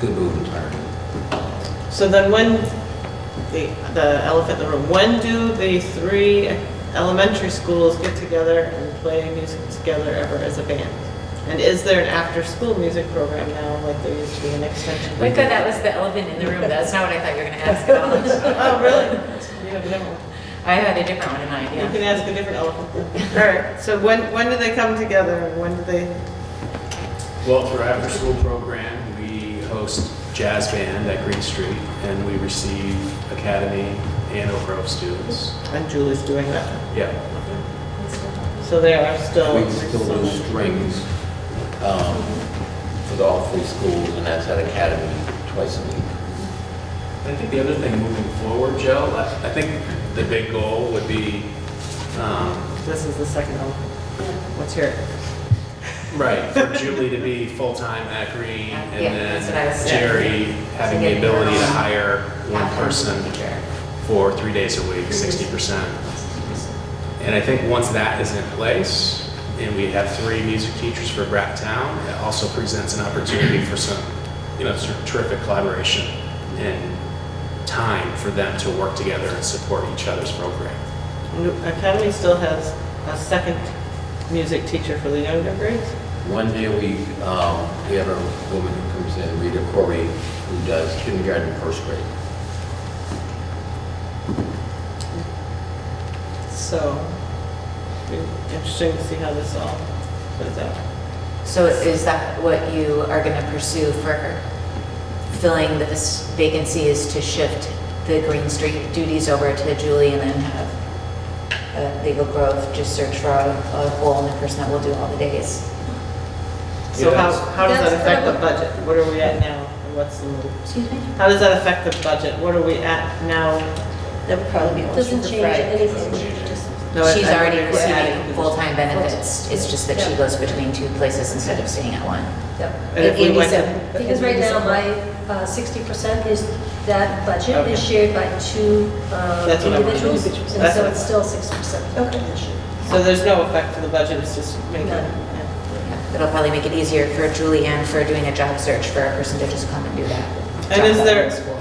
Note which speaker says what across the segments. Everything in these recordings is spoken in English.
Speaker 1: Good move entirely.
Speaker 2: So then when, the, the elephant in the room, when do the three elementary schools get together and play music together ever as a band? And is there an after-school music program now, like there used to be an extension?
Speaker 3: I thought that was the elephant in the room. That's not what I thought you were gonna ask at all.
Speaker 2: Oh, really? You have a different one.
Speaker 3: I had a different one in mind,
Speaker 2: You
Speaker 3: yeah.
Speaker 2: can ask a different elephant. All right, so when, when do they come together and when do they,
Speaker 4: Well, for our after-school program, we host jazz band at Green Street, and we receive academy and Oak Grove students.
Speaker 2: and Julie's doing that.
Speaker 4: Yeah,
Speaker 2: So they are still.
Speaker 1: We still do strings um, for the all three schools, and that's at Academy twice a week.
Speaker 4: I think the other thing moving forward, Joe, I I think the big goal would be, um,
Speaker 2: This is the second elephant. Let's hear it.
Speaker 4: right, for Julie to be full-time at Green, and
Speaker 3: Yeah, that's what I was
Speaker 4: then
Speaker 3: saying.
Speaker 4: Jerry having the ability to hire one person
Speaker 3: Sure.
Speaker 4: for three days a week, sixty percent. And I think once that is in place, and we have three music teachers for Bracktown, it also presents an opportunity for some, you know, sort of terrific collaboration and time for them to work together and support each other's program.
Speaker 2: Academy still has a second music teacher for the younger grades.
Speaker 1: One day a week, um, we have a woman who comes in, Rita Corey, who does kindergarten, and first grade.
Speaker 2: So be interesting to see how this all plays out.
Speaker 3: So is that what you are gonna pursue for filling this vacancy is to shift the Green Street duties over to Julie and then have uh, Legal Grove just search for a a hole in the person that will do all the days?
Speaker 2: So how,
Speaker 4: Yes.
Speaker 2: how does that
Speaker 3: That's-
Speaker 2: affect the budget? What are we at now? and What's the move?
Speaker 3: Excuse me?
Speaker 2: How does that affect the budget? What are we at now?
Speaker 3: That would probably be a motion
Speaker 5: Doesn't
Speaker 3: for
Speaker 5: change
Speaker 3: Friday.
Speaker 5: anything. just-
Speaker 2: No, I-
Speaker 3: She's
Speaker 2: I
Speaker 3: already
Speaker 2: wonder if we're adding
Speaker 3: receiving
Speaker 2: to
Speaker 3: full-time benefits, it's just that she
Speaker 5: Yeah.
Speaker 3: goes between two places instead of staying at one.
Speaker 5: Yep.
Speaker 2: And if we went to-
Speaker 3: 87.
Speaker 5: Because right now, my uh, sixty percent is, that budget is shared by two uh,
Speaker 2: That's what I'm-
Speaker 5: individuals. And
Speaker 2: That's
Speaker 5: so
Speaker 2: what-
Speaker 5: it's still sixty percent. Okay.
Speaker 2: this. So there's no effect to the budget, it's just making,
Speaker 5: No.
Speaker 2: yeah.
Speaker 3: It'll probably make it easier for Julie and for doing a job search for a person to just come and do that.
Speaker 2: And
Speaker 3: job
Speaker 2: is
Speaker 3: at
Speaker 2: there-
Speaker 3: the school.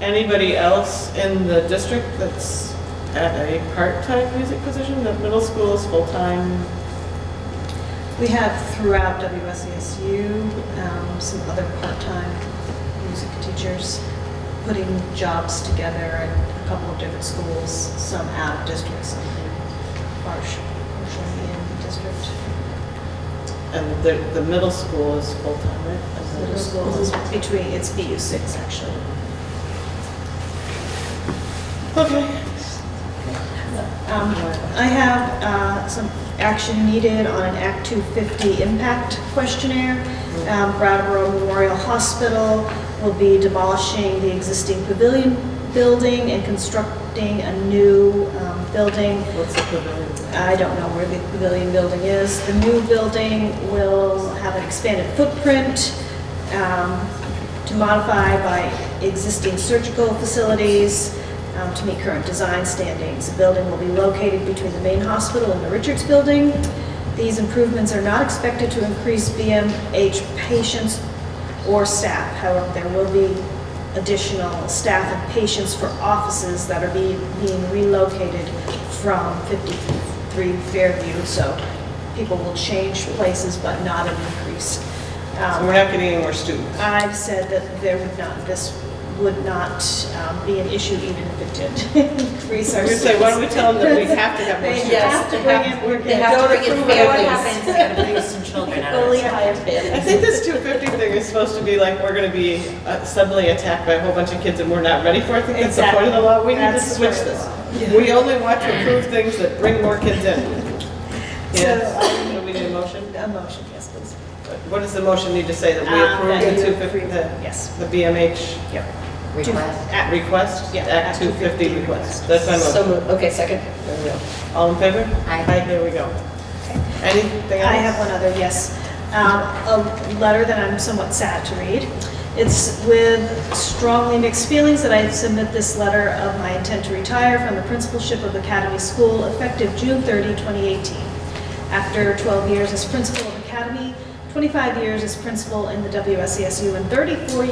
Speaker 2: Anybody else in the district that's at a part-time music position? The middle school is full-time.
Speaker 6: We have throughout WSESU, um, some other part-time music teachers putting jobs together at a couple of different schools, some out of district, some partial- partially in district.
Speaker 2: And the, the middle school is full-time, right? As a-
Speaker 6: Middle school is between, it's BU six actually.
Speaker 2: Okay.
Speaker 6: Um, I have uh, some action needed on an Act 250 impact questionnaire. Um, Brattleboro Memorial Hospital will be demolishing the existing pavilion building and constructing a new um, building.
Speaker 2: What's the equivalent?
Speaker 6: I don't know where the pavilion building is. The new building will have an expanded footprint um, to modify by existing surgical facilities um, to meet current design standings. The building will be located between the main hospital and the Richards Building. These improvements are not expected to increase BMH patients or staff. However, there will be additional staff and patients for offices that are being being relocated from 53 Fairview, so people will change places, but not an increase.
Speaker 2: So we're
Speaker 6: Um,
Speaker 2: not getting any more students.
Speaker 6: I've said that there would not, this would not um, be an issue even if it did increase
Speaker 2: I
Speaker 6: our
Speaker 2: was gonna
Speaker 6: students.
Speaker 2: say, why do we tell them that we have to have more
Speaker 6: They
Speaker 2: students?
Speaker 6: have to bring in, we're
Speaker 3: They have to bring in
Speaker 6: approve what
Speaker 3: families and bring some children out of
Speaker 6: Fully
Speaker 3: it.
Speaker 6: hire
Speaker 2: I
Speaker 6: families.
Speaker 2: think this 250 thing is supposed to be like, we're gonna be uh, suddenly attacked by a whole bunch of kids and we're not ready for it. I think that's the point of the law. We need to
Speaker 6: Exactly.
Speaker 2: switch
Speaker 6: That's the
Speaker 2: this.
Speaker 6: point
Speaker 2: We only want to approve things that bring more kids in.
Speaker 6: So, um,
Speaker 2: Yes. Do
Speaker 6: I-
Speaker 2: we need a motion?
Speaker 6: A motion, yes, please.
Speaker 2: What does the motion need to say, that we
Speaker 6: Um, that
Speaker 2: approve the
Speaker 6: you
Speaker 2: 250,
Speaker 6: approve,
Speaker 2: the-
Speaker 6: Yes.
Speaker 2: the BMH
Speaker 6: Yep.
Speaker 3: Request.
Speaker 2: at request?
Speaker 6: Yeah,
Speaker 2: Act
Speaker 6: Act
Speaker 2: 250 request. That's my motion.
Speaker 5: So, moved. okay, second. There we go.
Speaker 2: All in favor?
Speaker 3: Aye.
Speaker 2: There we go. Anything else?
Speaker 6: I have one other, yes. Um, A letter that I'm somewhat sad to read. It's with strongly mixed feelings that I submit this letter of my intent to retire from the principalship of Academy School effective June 30, 2018. After 12 years as principal of Academy, 25 years as principal in the WSESU, E and 34